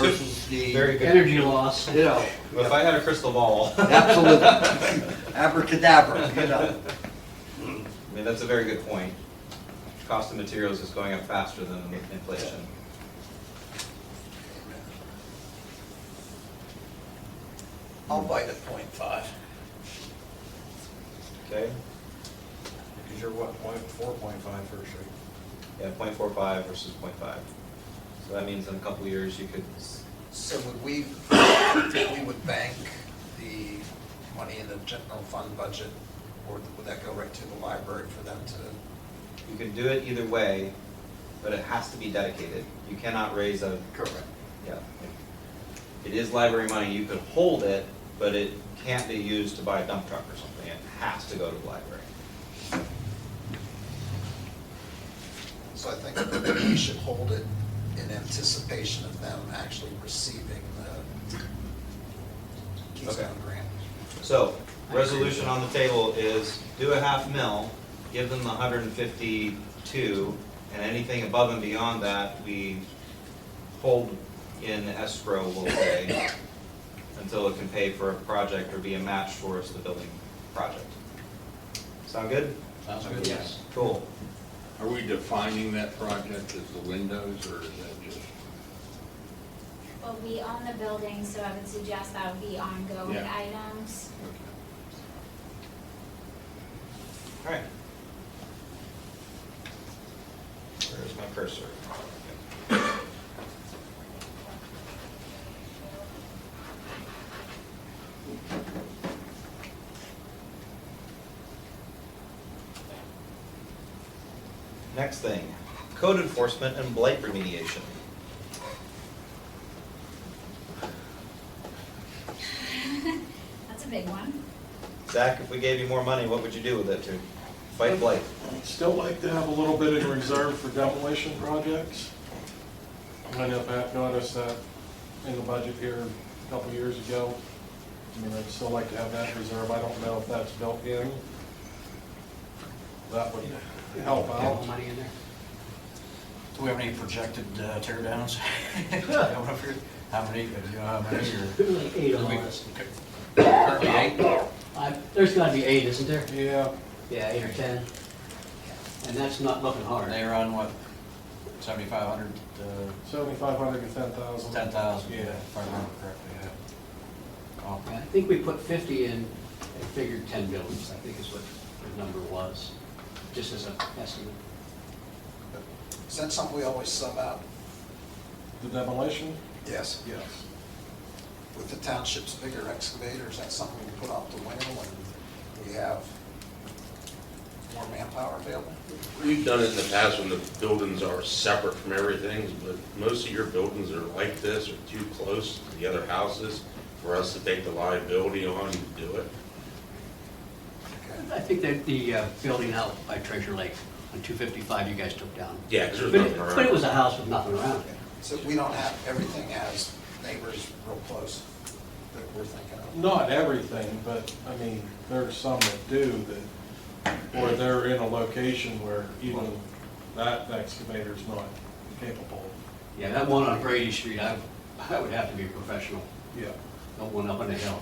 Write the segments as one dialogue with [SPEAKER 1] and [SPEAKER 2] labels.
[SPEAKER 1] versus the,
[SPEAKER 2] Very good.
[SPEAKER 3] Energy loss.
[SPEAKER 1] you know,
[SPEAKER 2] If I had a crystal ball, I
[SPEAKER 1] absolute abracadabra, you know.
[SPEAKER 2] mean, that's a very good point. Cost of materials is going up faster than inflation.
[SPEAKER 4] I'll bite at point five.
[SPEAKER 2] Okay?
[SPEAKER 4] Because you're what, point four, point five first, right?
[SPEAKER 2] Yeah, 0.45 versus 0.5. So that means in a couple of years, you could, s-
[SPEAKER 4] So would we, we would bank the money in the general fund budget, or would that go right to the library for them to?
[SPEAKER 2] you could do it either way, but it has to be dedicated. You cannot raise a,
[SPEAKER 4] Correct.
[SPEAKER 2] yeah. It is library money, you could hold it, but it can't be used to buy a dump truck or something. It has to go to the library.
[SPEAKER 4] So I think we should hold it in anticipation of them actually receiving the Keystone
[SPEAKER 2] Okay.
[SPEAKER 4] Grant.
[SPEAKER 2] So, resolution on the table is do a half mil, give them the hundred and fifty-two, and anything above and beyond that, we hold in escrow, we'll say, until it can pay for a project or be a match towards the building project. Sound good?
[SPEAKER 5] Sounds good.
[SPEAKER 3] Yes.
[SPEAKER 2] Cool.
[SPEAKER 5] Are we defining that project as the windows, or is that just,
[SPEAKER 6] Well, we own the building, so I would suggest that would be ongoing
[SPEAKER 5] Yeah.
[SPEAKER 6] items.
[SPEAKER 5] okay.
[SPEAKER 2] All right. Where's my cursor? Next thing, code enforcement and blight remediation.
[SPEAKER 6] That's a big one.
[SPEAKER 2] Zach, if we gave you more money, what would you do with it to fight blight?
[SPEAKER 7] Still like to have a little bit in reserve for demolition projects. I know Pat noticed that in the budget here a couple years ago. I mean, I'd still like to have that in reserve. I don't know if that's built in. That would help
[SPEAKER 3] Have
[SPEAKER 7] out.
[SPEAKER 3] Oh, money in there.
[SPEAKER 4] Do we have any projected
[SPEAKER 8] uh,
[SPEAKER 4] tear downs? How many, how many
[SPEAKER 3] Like eight on this.
[SPEAKER 4] Currently eight?
[SPEAKER 3] I- There's gotta be eight, isn't there?
[SPEAKER 7] Yeah,
[SPEAKER 3] Yeah, eight or ten. And that's not looking hard.
[SPEAKER 8] They were on what, seventy-five hundred, uh,
[SPEAKER 7] seventy-five hundred to ten thousand.
[SPEAKER 8] ten thousand,
[SPEAKER 7] Yeah.
[SPEAKER 8] if I remember correctly, yeah. Oh,
[SPEAKER 3] I think we put fifty in and figured ten buildings, I think is what the number was, just as an estimate.
[SPEAKER 4] Is that something we always sub out?
[SPEAKER 7] The demolition?
[SPEAKER 4] Yes.
[SPEAKER 7] Yes.
[SPEAKER 4] With the township's bigger excavators, that's something we put off the winter when we have more manpower available?
[SPEAKER 9] We've done it in the past when the buildings are separate from everything, but most of your buildings are like this or too close to the other houses for us to take the liability on to do it.
[SPEAKER 4] Okay.
[SPEAKER 3] I think that the uh, building out by Treasure Lake on two fifty-five you guys took down.
[SPEAKER 9] Yeah, because
[SPEAKER 3] But
[SPEAKER 9] there's nothing
[SPEAKER 3] it- but it
[SPEAKER 9] around.
[SPEAKER 3] was a house with nothing around it.
[SPEAKER 4] So we don't have everything as neighbors real close that we're thinking of?
[SPEAKER 7] Not everything, but I mean, there's some that do that, or they're in a location where even that excavator's not capable.
[SPEAKER 3] Yeah, that one on Brady Street, I, I would have to be a professional,
[SPEAKER 7] Yeah.
[SPEAKER 3] that one up on the hill.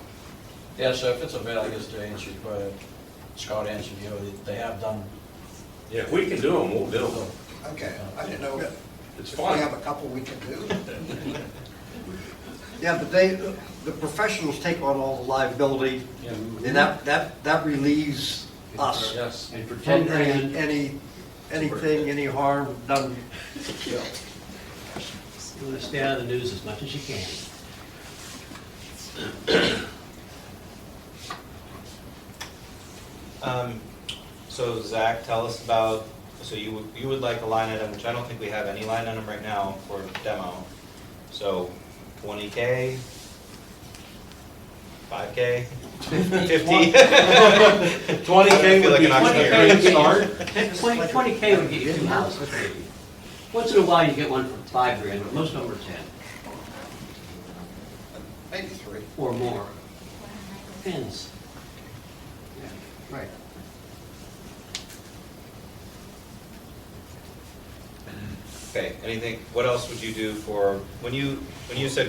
[SPEAKER 8] Yeah, so if it's available, I guess to answer, your que- Scott answered you, they have done,
[SPEAKER 9] Yeah, if we can do them, we'll do them.
[SPEAKER 4] Okay, I didn't know if
[SPEAKER 9] It's
[SPEAKER 4] if we have
[SPEAKER 9] fun.
[SPEAKER 4] a couple we can do.
[SPEAKER 1] Yeah, but they, the professionals take on all the liability, and that, that, that relieves us.
[SPEAKER 9] Yes.
[SPEAKER 3] And for ten
[SPEAKER 1] From
[SPEAKER 3] grand,
[SPEAKER 1] any, any, anything, any harm done. you know.
[SPEAKER 3] you want to stay out of the news as much as you can.
[SPEAKER 2] Um, so Zach, tell us about, so you, would- you would like a line item, which I don't think we have any line item right now for demo. So twenty K, five K, fifty?
[SPEAKER 7] Twenty K would
[SPEAKER 2] I don't feel like
[SPEAKER 7] be
[SPEAKER 2] an auctioneer.
[SPEAKER 7] a great start.
[SPEAKER 3] Twenty, twenty K would get you two houses, maybe. Once in a while, you get one for five grand, but most of them are ten
[SPEAKER 4] Maybe three.
[SPEAKER 3] or more.
[SPEAKER 6] What am I gonna-
[SPEAKER 3] Depends. Yeah, Right.
[SPEAKER 2] Okay, anything, what else would you do for, when you, when you said